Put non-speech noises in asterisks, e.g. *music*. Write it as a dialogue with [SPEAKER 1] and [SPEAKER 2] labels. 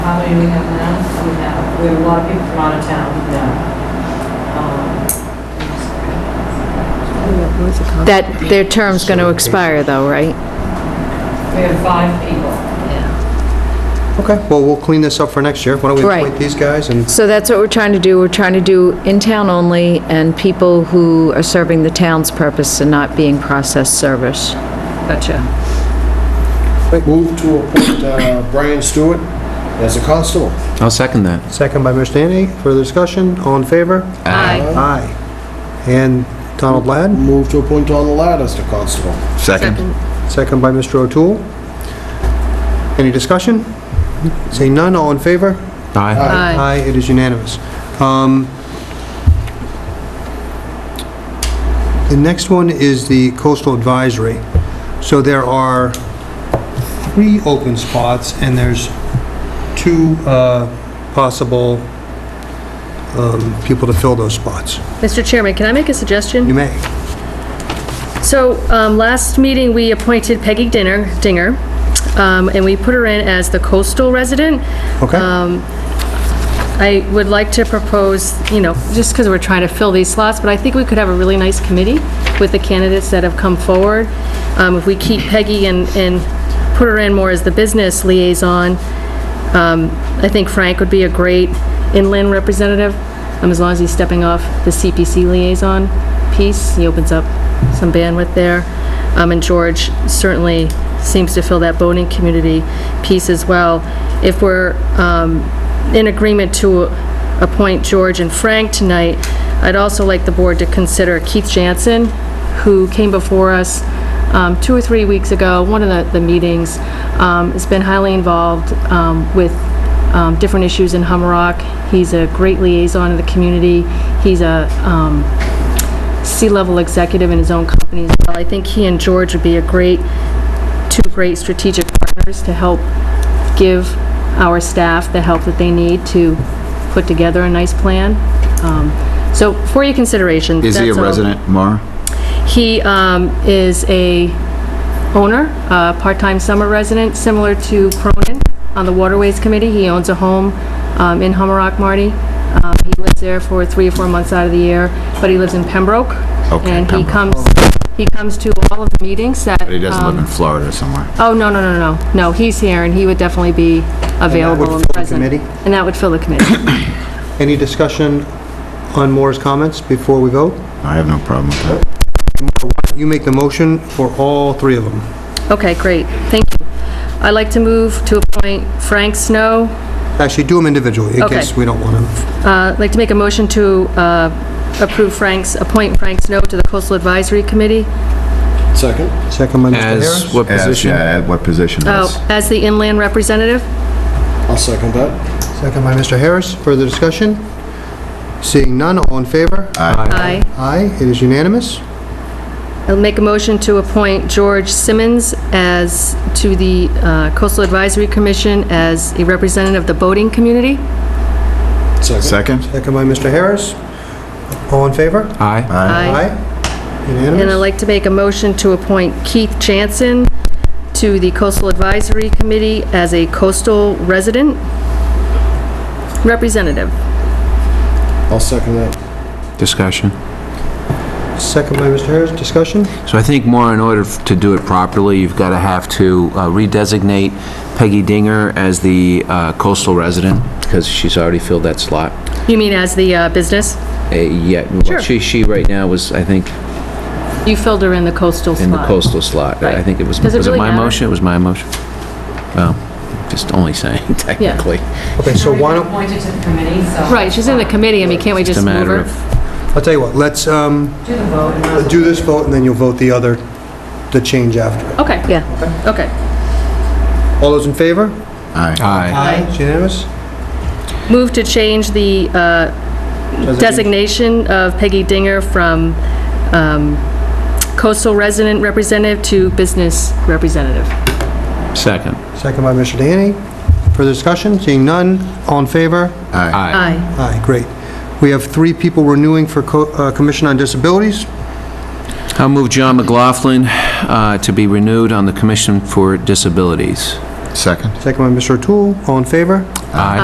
[SPEAKER 1] How many do we have now? We have, we have a lot of people from out of town now. Um,
[SPEAKER 2] That, their term's going to expire though, right?
[SPEAKER 1] We have five people.
[SPEAKER 3] Okay, well, we'll clean this up for next year. Why don't we
[SPEAKER 2] Right.
[SPEAKER 3] appoint these guys and,
[SPEAKER 2] So that's what we're trying to do. We're trying to do in-town only and people who are serving the town's purpose and not being process service. Gotcha.
[SPEAKER 4] Move to appoint uh, Brian Stewart as a constable.
[SPEAKER 5] I'll second that.
[SPEAKER 3] second by Mr. Anthony, further discussion, all in favor?
[SPEAKER 2] Aye.
[SPEAKER 3] Aye. And Donald Ladd,
[SPEAKER 4] Move to appoint Donald Ladd as the constable.
[SPEAKER 5] Second.
[SPEAKER 3] second by Mr. O'Toole. Any discussion? Seeing none, all in favor?
[SPEAKER 5] Aye.
[SPEAKER 2] Aye.
[SPEAKER 3] Aye, it is unanimous. Um, The next one is the coastal advisory. So there are three open spots, and there's two uh, possible um, people to fill those spots.
[SPEAKER 6] Mr. Chairman, can I make a
[SPEAKER 3] You
[SPEAKER 6] suggestion?
[SPEAKER 3] may.
[SPEAKER 6] So, um, last meeting, we appointed Peggy Dinner, Dinger, um, and we put her in as the coastal resident.
[SPEAKER 3] Okay?
[SPEAKER 6] I would like to propose, you know, just because we're trying to fill these slots, but I think we could have a really nice committee with the candidates that have come forward. Um, If we keep Peggy and, and put her in more as the business liaison, um, I think Frank would be a great inland representative, um, as long as he's stepping off the CPC liaison piece. He opens up some bandwidth there. Um, And George certainly seems to fill that boating community piece as well. If we're um, in agreement to appoint George and Frank tonight, I'd also like the board to consider Keith Jansen, who came before us um, two or three weeks ago, one of the- the meetings, um, has been highly involved um, with um, different issues in Hummerock. He's a great liaison in the community. He's a um, C-level executive in his own company as well. I think he and George would be a great, two great strategic partners to help give our staff the help that they need to put together a nice plan. Um, So for your consideration.
[SPEAKER 5] Is he a
[SPEAKER 6] that's all.
[SPEAKER 5] resident, Mara?
[SPEAKER 6] He um, is a owner, a part-time summer resident, similar to Cronin on the Waterways Committee. He owns a home um, in Hummerock, Marty. Um, He lives there for three or four months out of the year, but he lives in Pembroke.
[SPEAKER 5] Okay,
[SPEAKER 6] And he
[SPEAKER 5] Pembroke.
[SPEAKER 6] comes, he comes to all of the meetings that...
[SPEAKER 5] But he doesn't live
[SPEAKER 6] um,
[SPEAKER 5] in Florida or somewhere.
[SPEAKER 6] Oh, no, no, no, no, no, he's here, and he would definitely be available
[SPEAKER 3] fill
[SPEAKER 6] and
[SPEAKER 3] the
[SPEAKER 6] present.
[SPEAKER 3] committee?
[SPEAKER 6] And that would fill the committee. *coughs*
[SPEAKER 3] Any discussion on Moore's comments before we vote?
[SPEAKER 5] I have no problem with that.
[SPEAKER 3] You make the motion for all three of them.
[SPEAKER 6] Okay, great, thank you. I'd like to move to appoint Frank Snow,
[SPEAKER 3] Actually, do them individually, in
[SPEAKER 6] Okay.
[SPEAKER 3] case we don't want to.
[SPEAKER 6] Uh, I'd like to make a motion to uh, approve Frank's, appoint Frank Snow to the Coastal Advisory Committee,
[SPEAKER 4] Second?
[SPEAKER 3] Second by Mr. Harris.
[SPEAKER 5] As what position?
[SPEAKER 7] Yeah, at what position is?
[SPEAKER 6] oh, as the inland representative.
[SPEAKER 4] I'll second that.
[SPEAKER 3] Second by Mr. Harris. Further discussion? Seeing none, all in favor?
[SPEAKER 6] Aye.
[SPEAKER 3] Aye, it is unanimous.
[SPEAKER 6] I'll make a motion to appoint George Simmons as, to the uh, Coastal Advisory Commission as a representative of the boating community.
[SPEAKER 4] Second?
[SPEAKER 7] Second?
[SPEAKER 3] Second by Mr. Harris. All in favor?
[SPEAKER 5] Aye.
[SPEAKER 6] Aye. And I'd
[SPEAKER 3] Unanimous?
[SPEAKER 6] like to make a motion to appoint Keith Jansen to the Coastal Advisory Committee as a coastal resident representative.
[SPEAKER 4] I'll second that.
[SPEAKER 5] Discussion.
[SPEAKER 3] Second by Mr. Harris. Discussion?
[SPEAKER 5] So I think more in order f- to do it properly, you've got to have to uh, redesignate Peggy Dinger as the uh, coastal resident because she's already filled that slot.
[SPEAKER 6] You mean as the uh, business?
[SPEAKER 5] Uh, Yet,
[SPEAKER 6] Sure.
[SPEAKER 5] she, she right now was, I think,
[SPEAKER 6] You filled her in the coastal slot.
[SPEAKER 5] in the coastal slot. I I
[SPEAKER 6] Right.
[SPEAKER 5] think it was,
[SPEAKER 6] Does it
[SPEAKER 5] was it
[SPEAKER 6] really
[SPEAKER 5] my
[SPEAKER 6] matter?
[SPEAKER 5] motion? It was my motion. Well, just only saying *laughs* technically.
[SPEAKER 3] Okay, so why don't,
[SPEAKER 1] Appointed to the committee, so.
[SPEAKER 6] Right, she's in the committee, I mean, can't we
[SPEAKER 5] It's
[SPEAKER 6] just
[SPEAKER 5] a
[SPEAKER 6] move
[SPEAKER 5] matter of
[SPEAKER 6] her?
[SPEAKER 3] I'll tell you what, let's um,
[SPEAKER 1] Do the vote. and I'll-
[SPEAKER 3] do this vote, and then you'll vote the other, the change after.
[SPEAKER 6] Okay,
[SPEAKER 2] Yeah.
[SPEAKER 6] okay.
[SPEAKER 3] All those in favor?
[SPEAKER 7] Aye.
[SPEAKER 5] Aye.
[SPEAKER 3] It's unanimous?
[SPEAKER 6] Move to change the uh, designation of Peggy Dinger from um, coastal resident representative to business representative.
[SPEAKER 5] Second.
[SPEAKER 3] Second by Mr. Danny. Further discussion? Seeing none, all in favor?
[SPEAKER 7] Aye.
[SPEAKER 6] Aye.
[SPEAKER 3] Aye, great. We have three people renewing for co- uh, Commission on Disabilities.
[SPEAKER 5] I'll move John McLaughlin uh, to be renewed on the Commission for Disabilities.
[SPEAKER 7] Second?
[SPEAKER 3] Second by Mr. O'Toole. All in favor?
[SPEAKER 5] Aye.